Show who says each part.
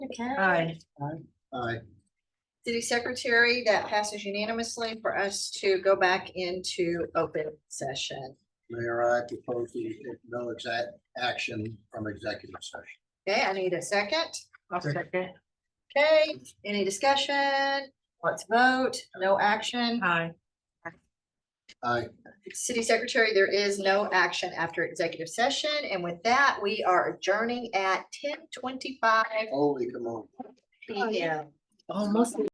Speaker 1: Okay.
Speaker 2: Aye.
Speaker 3: Aye.
Speaker 1: City Secretary, that passes unanimously for us to go back into open session.
Speaker 3: Mayor, I propose we take no exact action from executive session.
Speaker 1: Okay, I need a second.
Speaker 2: I'll second.
Speaker 1: Okay, any discussion? Let's vote. No action.
Speaker 2: Aye.
Speaker 3: Aye.
Speaker 1: City Secretary, there is no action after executive session. And with that, we are adjourning at ten twenty-five
Speaker 3: holy come on.
Speaker 1: PM.
Speaker 2: Almost